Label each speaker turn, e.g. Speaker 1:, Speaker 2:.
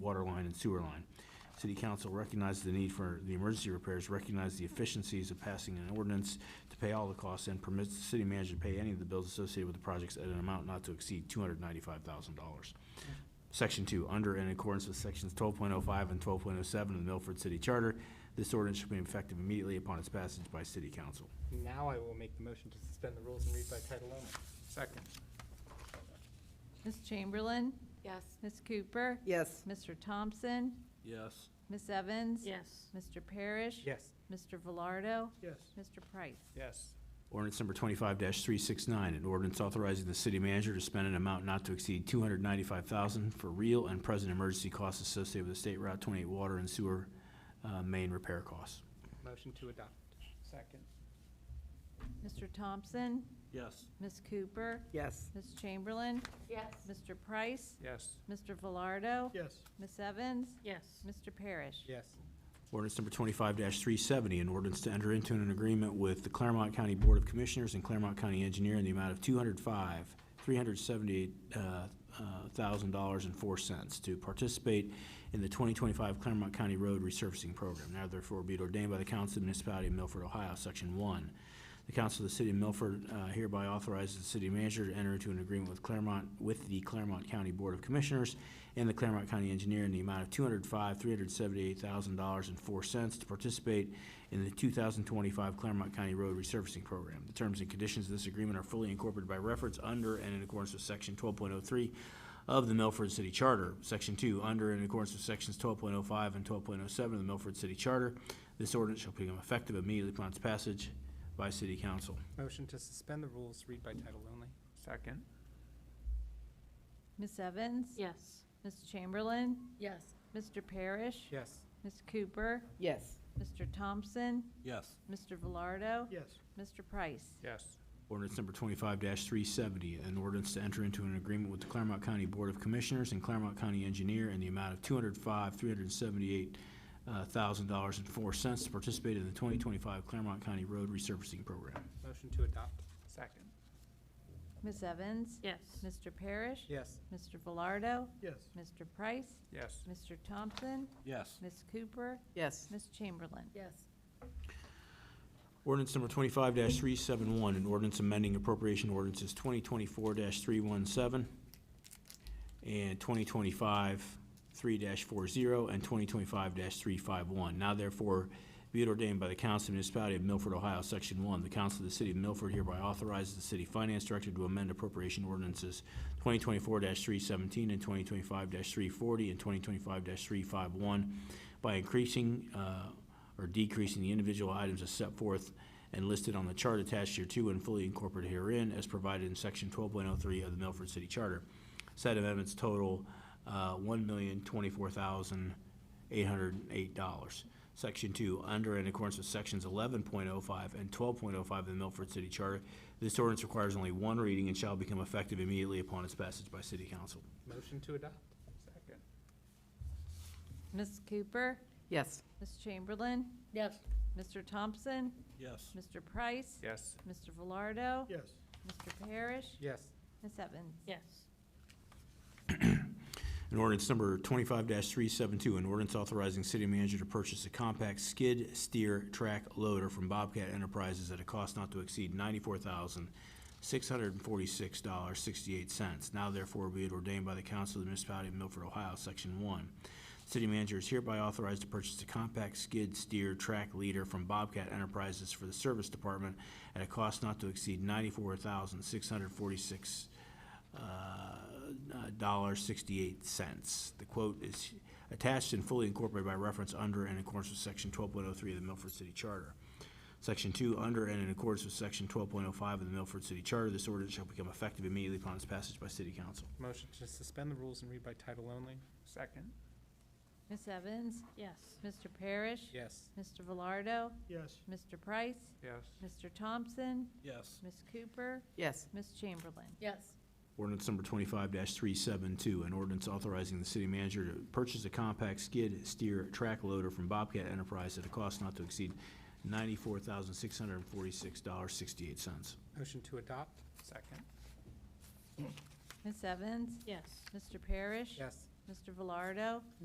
Speaker 1: water line and sewer line. City council recognizes the need for the emergency repairs, recognizes the efficiencies of passing an ordinance to pay all the costs, and permits the city manager to pay any of the bills associated with the projects at an amount not to exceed two hundred ninety-five thousand dollars. Section two, under and in accordance with sections twelve point oh five and twelve point oh seven of the Milford City Charter, this ordinance shall be effective immediately upon its passage by city council.
Speaker 2: Now I will make the motion to suspend the rules and read by title only. Second.
Speaker 3: Ms. Chamberlain?
Speaker 4: Yes.
Speaker 3: Ms. Cooper?
Speaker 5: yes,
Speaker 3: Mr. Thompson?
Speaker 6: yes,
Speaker 3: Ms. Evans?
Speaker 4: Yes.
Speaker 3: Mr. Parrish?
Speaker 2: Yes.
Speaker 3: Mr. Velardo?
Speaker 2: Yes.
Speaker 3: Mr. Price?
Speaker 2: Yes.
Speaker 1: Ordinance number twenty-five three six nine, an ordinance authorizing the city manager to spend an amount not to exceed two hundred ninety-five thousand for real and present emergency costs associated with the State Route twenty-eight water and sewer, uh, main repair costs.
Speaker 2: Motion to adopt. Second.
Speaker 3: Mr. Thompson?
Speaker 6: yes,
Speaker 3: Ms. Cooper?
Speaker 5: yes,
Speaker 3: Ms. Chamberlain?
Speaker 4: Yes.
Speaker 3: Mr. Price?
Speaker 2: Yes.
Speaker 3: Mr. Velardo?
Speaker 2: Yes.
Speaker 3: Ms. Evans?
Speaker 4: Yes.
Speaker 3: Mr. Parrish?
Speaker 2: Yes.
Speaker 1: Ordinance number twenty-five three seventy, an ordinance to enter into an agreement with the Claremont County Board of Commissioners and Claremont County Engineer in the amount of two hundred five, three hundred seventy-eight, uh, dollars and four cents to participate in the twenty twenty-five Claremont County Road Resurfacing Program. Now therefore be it ordained by the Council of the Municipality of Milford, Ohio, Section One. The Council of the City of Milford uh, hereby authorizes the city manager to enter into an agreement with Claremont, with the Claremont County Board of Commissioners and the Claremont County Engineer in the amount of two hundred five, three hundred seventy-eight thousand dollars and four cents to participate in the two thousand twenty-five Claremont County Road Resurfacing Program. The terms and conditions of this agreement are fully incorporated by reference under and in accordance with section twelve point oh three of the Milford City Charter. Section two, under and in accordance with sections twelve point oh five and twelve point oh seven of the Milford City Charter, this ordinance shall become effective immediately upon its passage by city council.
Speaker 2: Motion to suspend the rules, read by title only. Second.
Speaker 3: Ms. Evans?
Speaker 4: Yes.
Speaker 3: Ms. Chamberlain?
Speaker 4: Yes.
Speaker 3: Mr. Parrish?
Speaker 2: Yes.
Speaker 3: Ms. Cooper?
Speaker 5: yes,
Speaker 3: Mr. Thompson?
Speaker 6: yes,
Speaker 3: Mr. Velardo?
Speaker 2: Yes.
Speaker 3: Mr. Price?
Speaker 2: Yes.
Speaker 1: Ordinance number twenty-five three seventy, an ordinance to enter into an agreement with the Claremont County Board of Commissioners and Claremont County Engineer in the amount of two hundred five, three hundred seventy-eight thousand dollars and four cents to participate in the twenty twenty-five Claremont County Road Resurfacing Program.
Speaker 2: Motion to adopt. Second.
Speaker 3: Ms. Evans?
Speaker 4: Yes.
Speaker 3: Mr. Parrish?
Speaker 2: Yes.
Speaker 3: Mr. Velardo?
Speaker 2: Yes.
Speaker 3: Mr. Price?
Speaker 2: Yes.
Speaker 3: Mr. Thompson?
Speaker 6: yes,
Speaker 3: Ms. Cooper?
Speaker 5: yes,
Speaker 3: Ms. Chamberlain?
Speaker 4: Yes.
Speaker 1: Ordinance number twenty-five three seven one, an ordinance amending appropriation ordinances twenty twenty-four three one seven and twenty twenty-five three four zero and twenty twenty-five three five one. Now therefore, be it ordained by the Council of the Municipality of Milford, Ohio, Section One, the Council of the City of Milford hereby authorizes the City Finance Director to amend appropriation ordinances twenty twenty-four three seventeen and twenty twenty-five three forty and twenty twenty-five three five one by increasing, uh, or decreasing the individual items as set forth and listed on the chart attached here to and fully incorporated herein as provided in section twelve point oh three of the Milford City Charter. Said amendments total, uh, one million twenty-four thousand eight hundred and eight dollars. Section two, under and in accordance with sections eleven point oh five and twelve point oh five of the Milford City Charter, this ordinance requires only one reading and shall become effective immediately upon its passage by city council.
Speaker 2: Motion to adopt. Second.
Speaker 3: Ms. Cooper?
Speaker 5: yes,
Speaker 3: Ms. Chamberlain?
Speaker 4: Yes.
Speaker 3: Mr. Thompson?
Speaker 6: yes,
Speaker 3: Mr. Price?
Speaker 2: Yes.
Speaker 3: Mr. Velardo?
Speaker 2: Yes.
Speaker 3: Mr. Parrish?
Speaker 2: Yes.
Speaker 3: Ms. Evans?
Speaker 4: Yes.
Speaker 1: An ordinance number twenty-five three seven two, an ordinance authorizing city manager to purchase a compact skid steer track loader from Bobcat Enterprises at a cost not to exceed ninety-four thousand, six hundred and forty-six dollars, sixty-eight cents. Now therefore be it ordained by the Council of the Municipality of Milford, Ohio, Section One. City manager is hereby authorized to purchase a compact skid steer track leader from Bobcat Enterprises for the Service Department at a cost not to exceed ninety-four thousand, six hundred forty-six dollar sixty-eight cents. The quote is attached and fully incorporated by reference under and in accordance with section twelve point oh three of the Milford City Charter. Section two, under and in accordance with section twelve point oh five of the Milford City Charter, this ordinance shall become effective immediately upon its passage by city council.
Speaker 2: Motion to suspend the rules and read by title only. Second.
Speaker 3: Ms. Evans?
Speaker 4: Yes.
Speaker 3: Mr. Parrish?
Speaker 2: Yes.
Speaker 3: Mr. Velardo?
Speaker 2: Yes.
Speaker 3: Mr. Price?
Speaker 2: Yes.
Speaker 3: Mr. Thompson?
Speaker 6: yes,
Speaker 3: Ms. Cooper?
Speaker 5: yes,
Speaker 3: Ms. Chamberlain?
Speaker 4: Yes.
Speaker 1: Ordinance number twenty-five three seven two, an ordinance authorizing the city manager to purchase a compact skid steer track loader from Bobcat Enterprise at a cost not to exceed ninety-four thousand six hundred and forty-six dollars sixty-eight cents.
Speaker 2: Motion to adopt. Second.
Speaker 3: Ms. Evans?
Speaker 4: Yes.
Speaker 3: Mr. Parrish?
Speaker 2: Yes.
Speaker 3: Mr. Velardo?